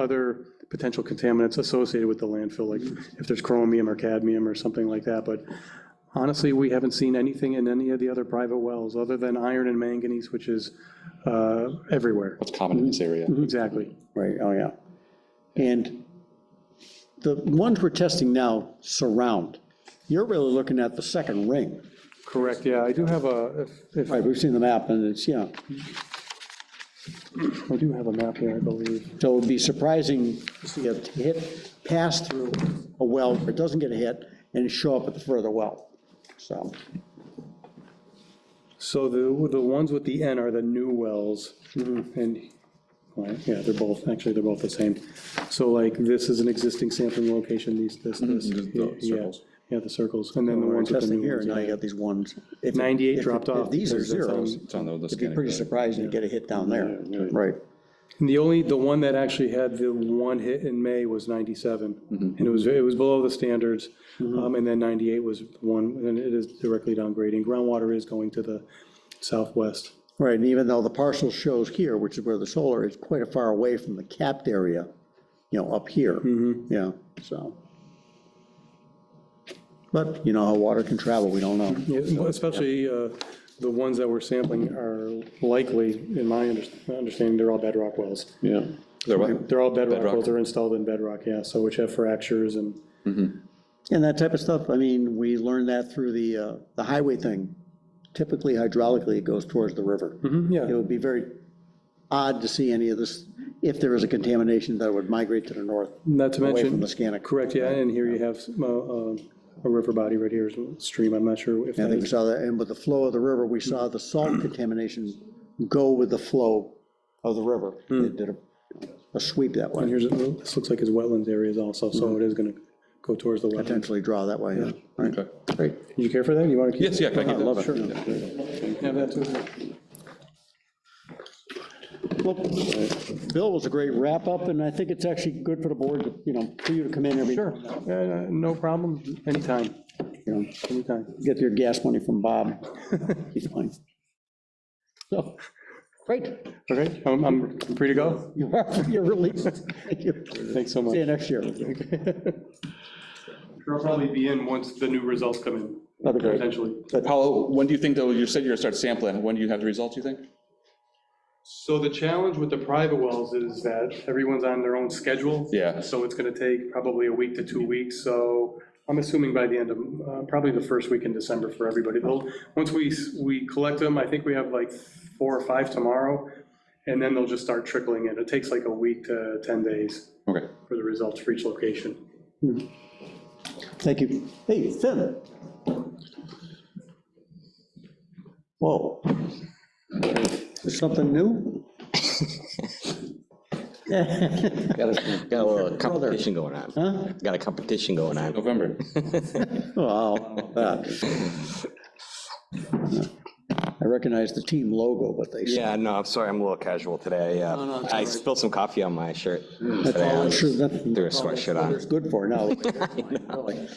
other potential contaminants associated with the landfill, like if there's chromium or cadmium or something like that, but honestly, we haven't seen anything in any of the other private wells, other than iron and manganese, which is uh, everywhere. It's common in this area. Mm-hmm. Mm-hmm. Exactly. Right, oh, yeah. And the ones we're testing now surround. You're really looking at the second ring. Correct, yeah, I do have a, if- if, Right, we've seen the map, and it's, yeah. I do have a map here, I believe. So it'd be surprising to see a hit pass through a well, where it doesn't get a hit, and show up at the further well. So, So the, the ones with the N are the new wells, Mm-hmm. and, right, yeah, they're both, actually, they're both the same. So like, this is an existing sampling location, these, this, Mm-hmm. this. the yeah, circles. Yeah, the circles, and then the we're ones with the testing new here, ones. and now yeah. you got these ones. If- 98 if- dropped if off These are because that's on- zeros. It's on the It'd be Liscanic. pretty surprising to get a hit down there. Right. And the only, the one that actually had the one hit in May was 97, Mm-hmm. and it was, it was below the standards. Um, And then 98 was one, and it is directly downgrading. Groundwater is going to the southwest. Right, and even though the parcel shows here, which is where the solar is, quite a far away from the capped area, you know, up here, yeah, so. But you know how water can travel, we don't know. Yeah, well, Especially uh, the ones that we're sampling are likely, in my underst- understanding, they're all bedrock wells. Yeah. They're what? They're all bedrock Bedrock. wells, they're installed in bedrock, yeah, so which have fractures and, And that type of stuff, I mean, we learned that through the, uh, the highway thing. Typically hydraulically, it goes towards the river. It yeah, would be very odd to see any of this, if there is a contamination that would migrate to the north, not to away mention, from the Scannic. correct, yeah, and here you have uh, uh, a river body right here, a stream, I'm not sure if I that think we is, saw that, and with the flow of the river, we saw the salt contamination go with the flow of the river. It did a- a sweep that and way, here's, this looks like his wetlands areas also, so it is going to go towards the wetland. potentially draw that way, yeah. Right. Okay. Great. You care for that, you want to keep? Uh-huh, Yes, yeah, can I keep that? Sure. Have that too. Well, Bill was a great wrap-up, and I think it's actually good for the board, to, you know, for you to come in every, Sure, Uh, no problem, anytime, you know, anytime. get your gas money from Bob. He's fine. So, great, Okay, I'm, I'm free to go, you are, you're released. Thank you. thanks so much. See you next year. That'd They'll probably be in once the new results come in, be great. potentially. Paolo, when do you think, though, you said you're going to start sampling, when do you have the results, you think? So the challenge with the private wells is that everyone's on their own schedule. Yeah. So it's gonna take probably a week to two weeks, so I'm assuming by the end of, uh, probably the first week in December for everybody. They'll, once we, s- we collect them, I think we have like four or five tomorrow, and then they'll just start trickling in. It takes like a week to 10 days Okay. for the results for each location. Thank you. Hey, Finn. Whoa. There's Something new? Got a, got a little competition going on. Got a competition going on. November. Wow. I recognize the team logo, but they, Yeah, no, I'm sorry, I'm a little casual today. uh, I spilled some coffee on my shirt that's today. all I it should, Threw that's a sweatshirt all on. it's good for now. Really.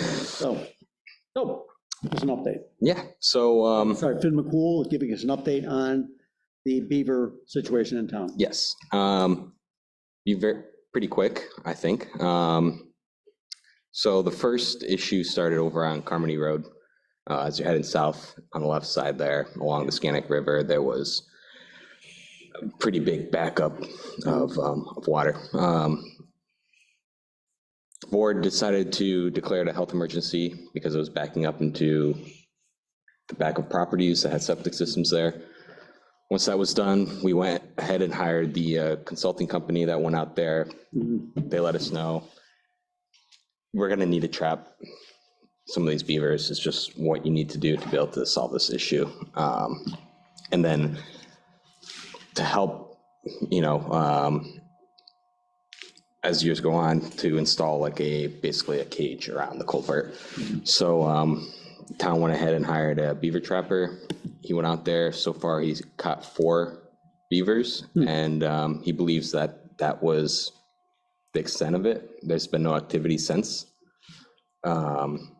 So, so, just an update. Yeah, so, um, Sorry, Finn McCool giving us an update on the beaver situation in town. Yes. um, Be very, pretty quick, I think. Um, So the first issue started over on Carmody Road. Uh, As you're heading south on the left side there, along the Scannick River, there was a pretty big backup of, um, of water. Um, Board decided to declare it a health emergency because it was backing up into the back of properties that had septic systems there. Once that was done, we went ahead and hired the uh, consulting company that went out there. They let us know, we're gonna need to trap some of these beavers. It's just what you need to do to be able to solve this issue. Um, And then to help, you know, um, as years go on, to install like a, basically a cage around the culvert. So um, town went ahead and hired a beaver trapper. He went out there. So far, he's caught four beavers, and um, he believes that that was the extent of it. There's been no activity since. Um,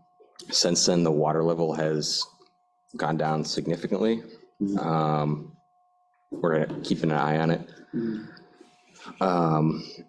since then, the water level has gone down significantly. Um, we're keeping an eye on it. Um,